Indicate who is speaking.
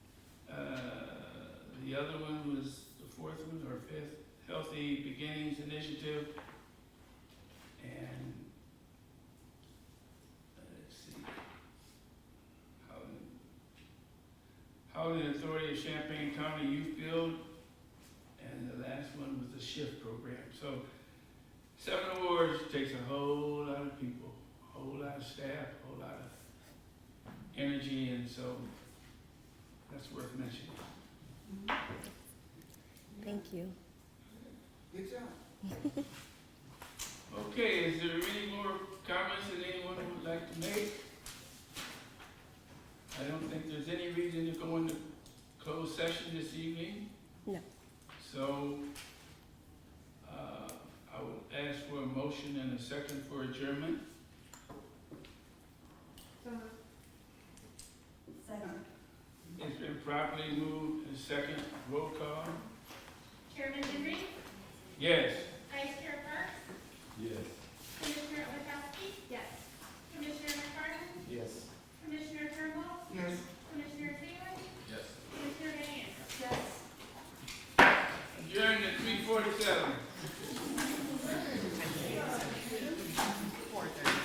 Speaker 1: Uh, The other one was the fourth one or fifth, Healthy Beginnings Initiative. And, uh, let's see. Housing- Housing Authority of Champaign County Youth Build. And the last one was the Shift Program. So seven awards takes a whole lot of people, a whole lot of staff, a whole lot of energy, and so that's worth mentioning.
Speaker 2: Thank you.
Speaker 3: Good job.
Speaker 1: Okay, is there any more comments that anyone would like to make? I don't think there's any reason to go into closed session this evening.
Speaker 2: No.
Speaker 1: So, uh, I will ask for a motion and a second for adjournment.
Speaker 4: Second.
Speaker 1: It's been properly moved and second, roll call.
Speaker 5: Chairman Henry,
Speaker 1: Yes.
Speaker 5: Vice Chair Parks,
Speaker 3: Yes.
Speaker 5: Commissioner Ovechowski,
Speaker 4: Yes.
Speaker 5: Commissioner McFarland,
Speaker 3: Yes.
Speaker 5: Commissioner Turnbull,
Speaker 3: Yes.
Speaker 5: Commissioner Taylor,
Speaker 3: Yes.
Speaker 5: Commissioner Van Antrim.
Speaker 4: Yes.
Speaker 1: Adjourned at three forty-seven.